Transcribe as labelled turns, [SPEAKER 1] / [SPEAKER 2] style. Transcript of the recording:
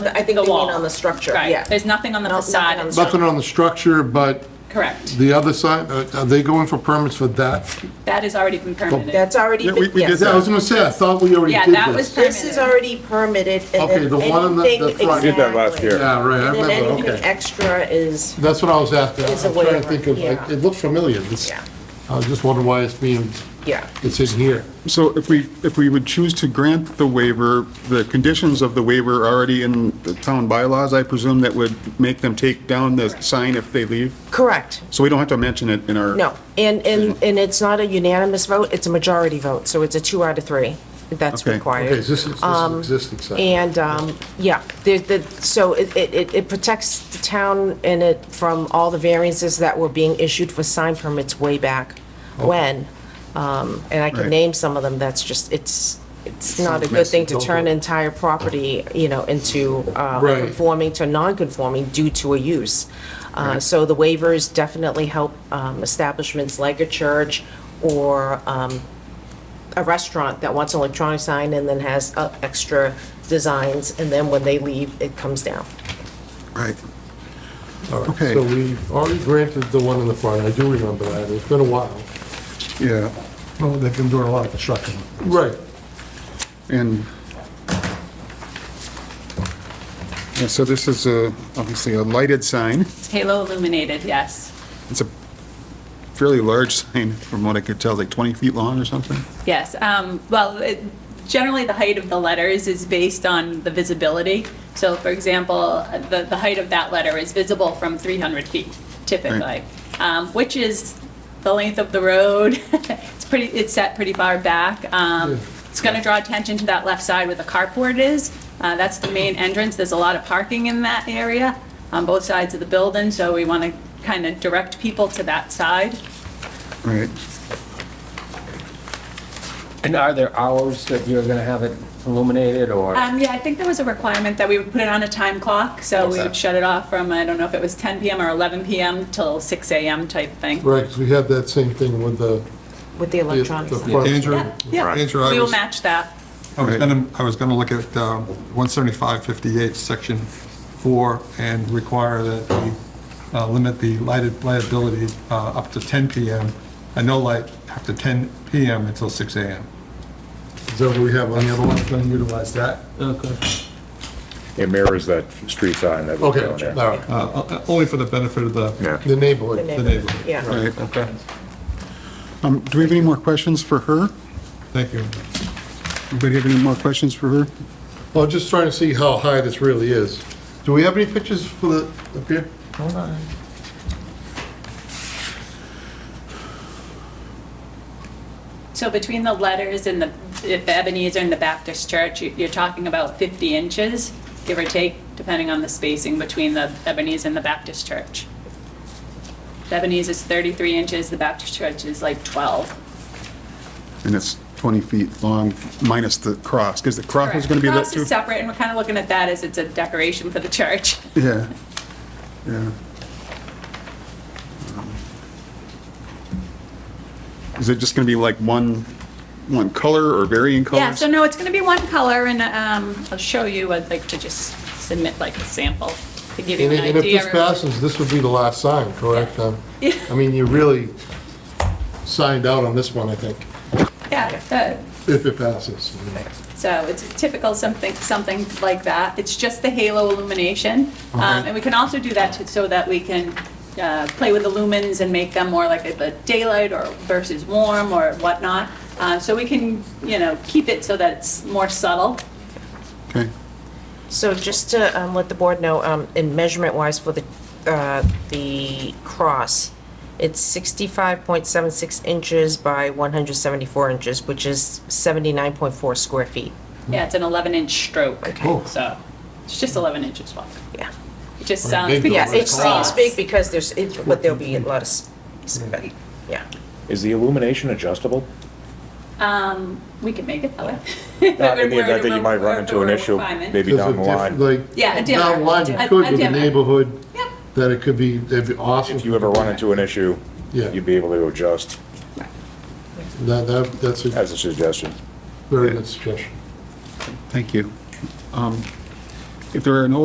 [SPEAKER 1] I think
[SPEAKER 2] the
[SPEAKER 1] they mean
[SPEAKER 2] wall.
[SPEAKER 1] on the structure,
[SPEAKER 2] Right.
[SPEAKER 1] yeah.
[SPEAKER 2] There's nothing on the
[SPEAKER 1] No- nothing
[SPEAKER 2] facade.
[SPEAKER 1] on the
[SPEAKER 2] itself.
[SPEAKER 3] Nothing on the structure, but
[SPEAKER 2] Correct.
[SPEAKER 3] the other side, uh, are they going for permits for that?
[SPEAKER 2] That has already been permitted.
[SPEAKER 1] That's already
[SPEAKER 4] Yeah, we-
[SPEAKER 1] been,
[SPEAKER 4] we did
[SPEAKER 1] yes.
[SPEAKER 3] I was gonna say, I thought we already
[SPEAKER 2] Yeah,
[SPEAKER 3] did
[SPEAKER 2] that was
[SPEAKER 3] this.
[SPEAKER 1] This is already permitted and
[SPEAKER 3] Okay, the
[SPEAKER 1] then
[SPEAKER 3] one on the-
[SPEAKER 1] anything.
[SPEAKER 3] the front.
[SPEAKER 5] We did that last
[SPEAKER 1] exactly.
[SPEAKER 5] year.
[SPEAKER 3] Yeah, right, I
[SPEAKER 1] And then
[SPEAKER 3] remember,
[SPEAKER 1] anything
[SPEAKER 3] okay.
[SPEAKER 1] extra is,
[SPEAKER 3] That's what I was after.
[SPEAKER 1] It's a
[SPEAKER 3] I'm trying to
[SPEAKER 1] waiver,
[SPEAKER 3] think of,
[SPEAKER 1] yeah.
[SPEAKER 3] it looked familiar. This-
[SPEAKER 1] Yeah.
[SPEAKER 3] I was just wondering why it's being,
[SPEAKER 1] yeah.
[SPEAKER 3] it's in here.
[SPEAKER 4] So if we, if we would choose to grant the waiver, the conditions of the waiver are already in the town bylaws, I presume that would make them take down the sign if they leave?
[SPEAKER 1] Correct.
[SPEAKER 4] So we don't have to mention it in our.
[SPEAKER 1] No, and, and, and it's not a unanimous vote, it's a majority vote, so it's a two out of three that's
[SPEAKER 4] Okay,
[SPEAKER 3] Okay,
[SPEAKER 1] required. Um,
[SPEAKER 3] is this, this is an existing site?
[SPEAKER 1] And, um, yeah, there's the, so it, it- it, it protects the town and it from all the variances that were being issued for sign permits way back when. Um, and I can
[SPEAKER 4] Right.
[SPEAKER 1] name some of them, that's just, it's, it's not a good
[SPEAKER 3] messy,
[SPEAKER 1] thing to
[SPEAKER 3] don't
[SPEAKER 1] turn
[SPEAKER 3] do it.
[SPEAKER 1] entire property, you know, into, uh,
[SPEAKER 3] Right.
[SPEAKER 1] conforming to non-conforming due to a use. Uh, so the waivers definitely help, um, establishments like a church or, um, a restaurant that wants an electronic sign and then has uh, extra designs, and then when they leave, it comes down.
[SPEAKER 4] Right.
[SPEAKER 3] All right,
[SPEAKER 4] Okay.
[SPEAKER 3] So we already granted the one in the front, I do remember that, it's been a while.
[SPEAKER 4] Yeah,
[SPEAKER 6] Well, they've been doing a lot of construction.
[SPEAKER 3] Right.
[SPEAKER 4] and. And so this is a, obviously a lighted sign.
[SPEAKER 2] It's halo illuminated, yes.
[SPEAKER 4] It's a fairly large sign, from what I could tell, like 20 feet long or something.
[SPEAKER 2] Yes, um, well, it- generally, the height of the letters is based on the visibility. So for example, the, the height of that letter is visible from 300 feet typically,
[SPEAKER 4] Right.
[SPEAKER 2] um, which is the length of the road. It's pretty, it's set pretty far back. Um, It's going to draw attention to that left side where the carport is. Uh, That's the main entrance. There's a lot of parking in that area on both sides of the building, so we want to kind of direct people to that side.
[SPEAKER 4] Right.
[SPEAKER 7] And are there hours that you're going to have it illuminated or?
[SPEAKER 2] Um, yeah, I think there was a requirement that we would put it on a time clock, so we
[SPEAKER 7] Okay.
[SPEAKER 2] would shut it off from, I don't know if it was 10 PM or 11 PM till 6 AM type thing.
[SPEAKER 3] Right, 'cause we had that same thing with the.
[SPEAKER 1] With the
[SPEAKER 3] the-
[SPEAKER 1] electronic
[SPEAKER 3] the
[SPEAKER 1] sign.
[SPEAKER 3] front.
[SPEAKER 6] Andrew,
[SPEAKER 2] Yeah,
[SPEAKER 6] Andrew, I
[SPEAKER 2] we will
[SPEAKER 6] was,
[SPEAKER 2] match that.
[SPEAKER 6] I was gonna, I was gonna look at um, 17558, section 4, and require that we uh, limit the lighted liability uh, up to 10 PM, and no light after 10 PM until 6 AM.
[SPEAKER 3] Is that what we have on the other one?
[SPEAKER 6] Gonna utilize that?
[SPEAKER 5] It mirrors that street sign that was
[SPEAKER 3] Okay,
[SPEAKER 5] down there.
[SPEAKER 3] all right,
[SPEAKER 6] Uh, uh, Only for the benefit of the
[SPEAKER 5] Yeah.
[SPEAKER 3] the neighborhood.
[SPEAKER 6] the neighborhood.
[SPEAKER 1] Yeah.
[SPEAKER 4] Right.
[SPEAKER 7] Okay.
[SPEAKER 4] Um, Do we have any more questions for her?
[SPEAKER 6] Thank you.
[SPEAKER 4] Anybody have any more questions for her?
[SPEAKER 3] Well, I'm just trying to see how high this really is. Do we have any pictures for the, up here?
[SPEAKER 2] So between the letters and the if Ebenezer and the Baptist Church, you- you're talking about 50 inches, give or take, depending on the spacing between the Ebenezer and the Baptist Church. The Ebenezer is 33 inches, the Baptist Church is like 12.
[SPEAKER 4] And it's 20 feet long minus the cross, because the cross is going to be lit
[SPEAKER 2] Cross
[SPEAKER 4] too.
[SPEAKER 2] is separate, and we're kind of looking at that as it's a decoration for the church.
[SPEAKER 4] Yeah, yeah. Is it just going to be like one, one color or varying colors?
[SPEAKER 2] Yeah, so no, it's going to be one color, and um, I'll show you, I'd like to just submit like a sample to give you
[SPEAKER 3] And
[SPEAKER 2] an
[SPEAKER 3] i- and if
[SPEAKER 2] idea.
[SPEAKER 3] this passes, this would be the last sign, correct? Um, I mean, you really signed out on this one, I think,
[SPEAKER 2] Yeah,
[SPEAKER 3] if it passes.
[SPEAKER 2] uh, so it's typical something, something like that. It's just the halo illumination. Um, And we can also do that to- so that we can uh, play with the lumens and make them more like a a daylight or versus warm or whatnot. Uh, So we can, you know, keep it so that it's more subtle.
[SPEAKER 3] Hmm.
[SPEAKER 4] Okay,
[SPEAKER 1] So just to um, let the board know, um, in measurement-wise for the, uh, the cross, it's 65.76 inches by 174 inches, which is 79.4 square feet.
[SPEAKER 2] Yeah, it's an 11-inch stroke,
[SPEAKER 3] Oh.
[SPEAKER 2] so it's just 11 inches long.
[SPEAKER 1] Yeah.
[SPEAKER 2] It just
[SPEAKER 3] Or a
[SPEAKER 2] sounds.
[SPEAKER 3] big
[SPEAKER 2] big
[SPEAKER 1] Yeah,
[SPEAKER 3] Yeah,
[SPEAKER 2] as
[SPEAKER 3] one.
[SPEAKER 2] a
[SPEAKER 1] it seems
[SPEAKER 2] cross.
[SPEAKER 1] big because there's, it- but there'll be a lot of, s- s- yeah.
[SPEAKER 5] Is the illumination adjustable?
[SPEAKER 2] Um, we could make it that way.
[SPEAKER 5] Not in the event that you might run into an issue, maybe down the line.
[SPEAKER 3] Like,
[SPEAKER 2] Yeah, a dimmer.
[SPEAKER 3] down the line,
[SPEAKER 2] A-
[SPEAKER 3] you could
[SPEAKER 2] a
[SPEAKER 3] with the
[SPEAKER 2] dimmer.
[SPEAKER 3] neighborhood,
[SPEAKER 2] Yep.
[SPEAKER 3] that it could be, that'd be awesome.
[SPEAKER 5] If you ever run into an issue,
[SPEAKER 3] Yeah.
[SPEAKER 5] you'd be able to adjust,
[SPEAKER 3] That, that, that's a
[SPEAKER 5] as a suggestion.
[SPEAKER 3] very good suggestion.
[SPEAKER 4] thank you. Um, If there are no